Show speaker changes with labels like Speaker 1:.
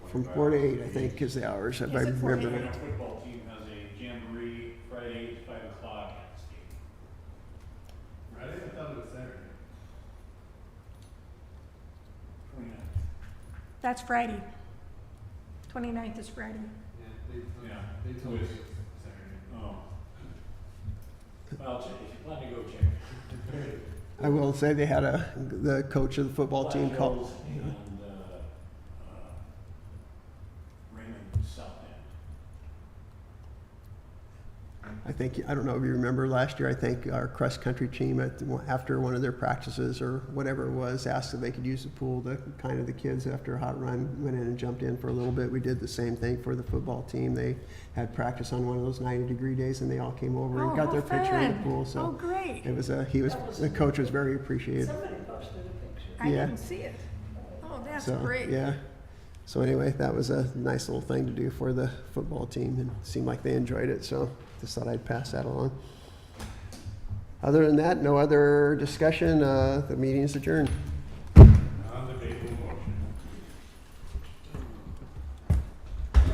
Speaker 1: from four to eight, I think, is the hours, if I
Speaker 2: Is it four to
Speaker 1: remember.
Speaker 2: eight?
Speaker 1: right.
Speaker 3: Our football team has a jamboree Friday at five o'clock at the stadium.
Speaker 4: Friday, I thought it was Saturday.
Speaker 3: Twenty-ninth.
Speaker 2: That's Friday. 29th is Friday.
Speaker 4: Yeah, they,
Speaker 3: Yeah.
Speaker 4: they told me it
Speaker 3: It was-
Speaker 4: was Saturday.
Speaker 3: Oh. Well, check- if you plan to go check.
Speaker 1: I will say they had a, the coach of the football team called,
Speaker 3: Flash Hills And, uh, uh, Raymond South End.
Speaker 1: I think, I don't know if you remember last year, I think our cross-country team at, the- after one of their practices or whatever it was, asked if they could use the pool, the, kind of the kids after a hot run went in and jumped in for a little bit. We did the same thing for the football team. They had practice on one of those ninety-degree days and they all came over
Speaker 2: Oh,
Speaker 1: and got
Speaker 2: how
Speaker 1: their picture in
Speaker 2: fun.
Speaker 1: the pool,
Speaker 2: Oh,
Speaker 1: so.
Speaker 2: great.
Speaker 1: It was a, he was, the coach was very appreciative.
Speaker 5: Somebody posted a picture.
Speaker 2: I
Speaker 1: yeah.
Speaker 2: didn't see it. Oh, that's
Speaker 1: So,
Speaker 2: great.
Speaker 1: Yeah. So anyway, that was a nice little thing to do for the football team and it seemed like they enjoyed it, so just thought I'd pass that along. Other than that, no other discussion, uh, the meeting's adjourned.